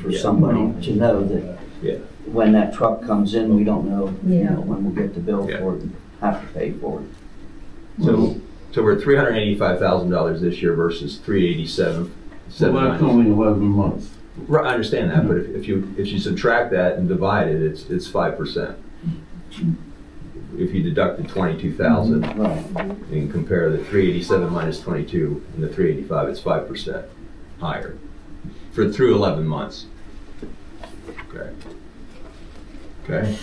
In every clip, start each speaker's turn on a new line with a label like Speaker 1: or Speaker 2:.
Speaker 1: for
Speaker 2: Yeah.
Speaker 1: somebody to know that
Speaker 2: Yeah.
Speaker 1: when that truck comes in, we don't know, you
Speaker 3: Yeah.
Speaker 1: know, when we'll get the bill
Speaker 2: Yeah.
Speaker 1: for it, and have to pay for it.
Speaker 2: So, so we're at three hundred eighty-five thousand dollars this year versus three eighty-seven.
Speaker 4: So that's only eleven months.
Speaker 2: Right, I understand that, but if, if you, if you subtract that and divide it, it's, it's five percent. If you deduct the twenty-two thousand
Speaker 1: Right.
Speaker 2: and compare the three eighty-seven minus twenty-two and the three eighty-five, it's five percent higher for through eleven months. Okay. Okay.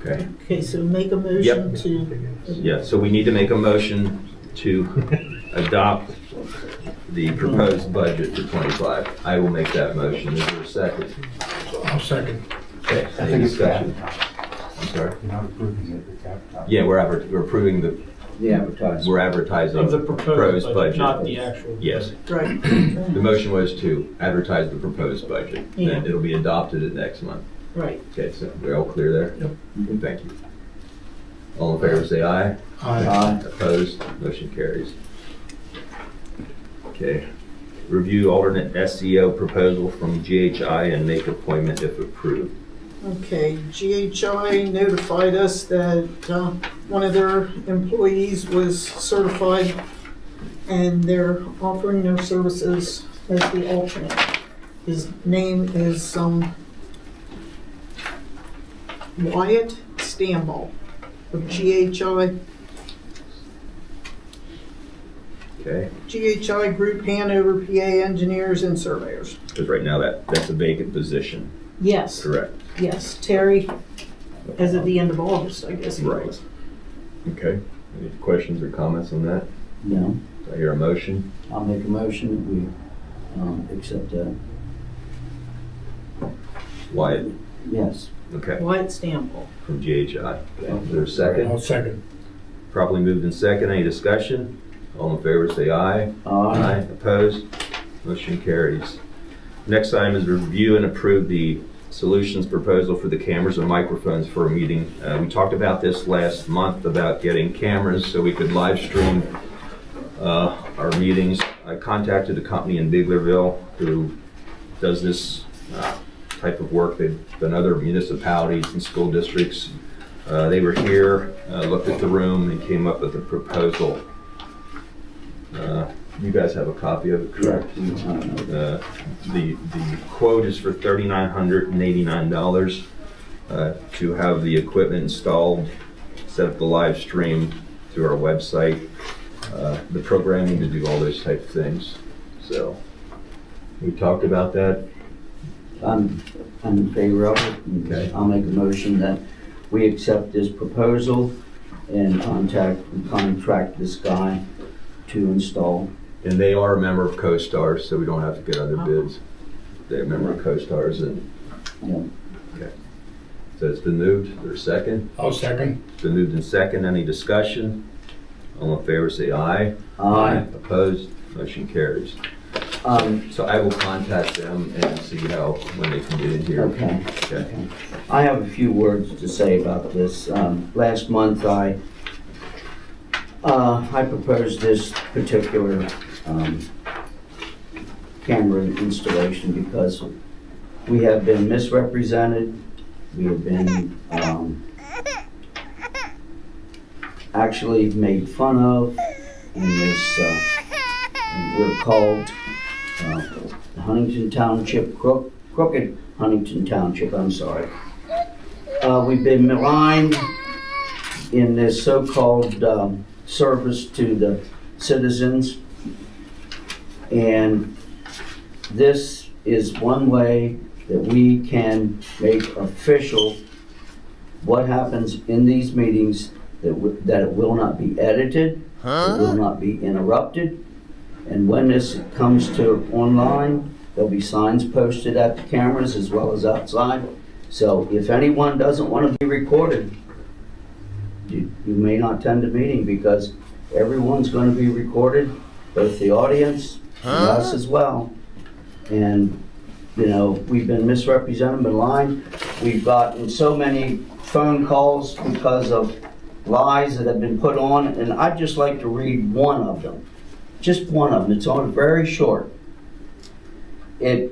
Speaker 2: Okay.
Speaker 5: Okay, so make a motion to,
Speaker 2: Yeah, so we need to make a motion to adopt the proposed budget for twenty-five. I will make that motion. Is there a second?
Speaker 6: I'll second.
Speaker 2: Okay,
Speaker 7: I
Speaker 2: any
Speaker 7: think it's
Speaker 2: discussion? I'm sorry?
Speaker 7: You're not approving it, the capital.
Speaker 2: Yeah, we're adver, we're approving the,
Speaker 1: The advertising.
Speaker 2: we're advertising
Speaker 6: Of the
Speaker 2: the
Speaker 6: proposed budget, not the
Speaker 2: budget.
Speaker 6: actual.
Speaker 2: Yes,
Speaker 5: right,
Speaker 2: the motion was to advertise the proposed budget,
Speaker 5: Yeah.
Speaker 2: then it'll be adopted at next month.
Speaker 5: right.
Speaker 2: Okay, so we're all clear there? Yep. Thank you. All in favor, say aye.
Speaker 6: Aye.
Speaker 1: Uh,
Speaker 2: Opposed, motion carries. Okay, review alternate SEO proposal from GHI and make appointment if approved.
Speaker 5: Okay, GHI notified us that uh, one of their employees was certified and they're offering their services as the alternate. His name is um, Wyatt Stambaugh of GHI.
Speaker 2: Okay,
Speaker 5: GHI Group Hanover, PA engineers and surveyors.
Speaker 2: because right now that, that's a vacant position,
Speaker 5: Yes,
Speaker 2: correct?
Speaker 5: yes, Terry, as of the end of August, I guess. it
Speaker 2: Right.
Speaker 5: was.
Speaker 2: Okay, any questions or comments on that?
Speaker 1: No,
Speaker 2: Do I hear a motion?
Speaker 1: I'll make a motion that we um, accept that.
Speaker 2: Wyatt,
Speaker 1: Yes.
Speaker 2: okay,
Speaker 5: Wyatt Stample.
Speaker 2: from GHI. Is there a
Speaker 6: I'll
Speaker 2: second?
Speaker 6: second.
Speaker 2: Properly moved in second, any discussion? All in favor, say aye.
Speaker 1: Aye.
Speaker 2: Aye, opposed, motion carries. Next item is review and approve the solutions proposal for the cameras and microphones for a meeting. Uh, We talked about this last month, about getting cameras so we could live stream uh, our meetings. I contacted a company in Biglerville who does this uh, type of work. They've done other municipalities and school districts. Uh, They were here, uh, looked at the room, and came up with a proposal. Uh, You guys have a copy of it, correct?
Speaker 1: Correct. We don't know.
Speaker 2: Uh, The, the quote is for thirty-nine hundred and eighty-nine dollars uh, to have the equipment installed, set up the live stream through our website, uh, the programming to do all those type of things. So, we talked about that.
Speaker 1: I'm, I'm in favor of it. and
Speaker 2: Okay.
Speaker 1: I'll make a motion that we accept this proposal and contact, contract this guy to install.
Speaker 2: And they are a member of CoStar, so we don't have to get
Speaker 1: Oh.
Speaker 2: other bids. They're a member of CoStar's and.
Speaker 1: Yeah.
Speaker 2: Okay. So it's been moved, or second?
Speaker 6: I'll second.
Speaker 2: It's been moved in second. Any discussion? All in favor, say aye.
Speaker 1: Aye.
Speaker 2: Opposed? Motion carries.
Speaker 1: Um,
Speaker 2: So I will contact them and see how, when they can get in here.
Speaker 1: Okay.
Speaker 2: Okay.
Speaker 1: I have a few words to say about this. Um, Last month, I, uh, I proposed this particular um, camera installation because we have been misrepresented, we have been um, actually made fun of, and this, uh, and we're called uh, Huntington Township crook- crooked Huntington Township, I'm sorry. Uh, we've been maligned in this so-called, um, service to the citizens. And this is one way that we can make official what happens in these meetings, that, w- that it will not be edited, it will not be interrupted. And when this comes to online, There'll be signs posted at the cameras as well as outside. So if anyone doesn't want to be recorded, you, you may not attend the meeting because everyone's going to be recorded, both the audience and us as well. And, you know, we've been misrepresented and lying. We've gotten so many phone calls because of lies that have been put on, and I'd just like to read one of them. Just one of them. It's on, very short. it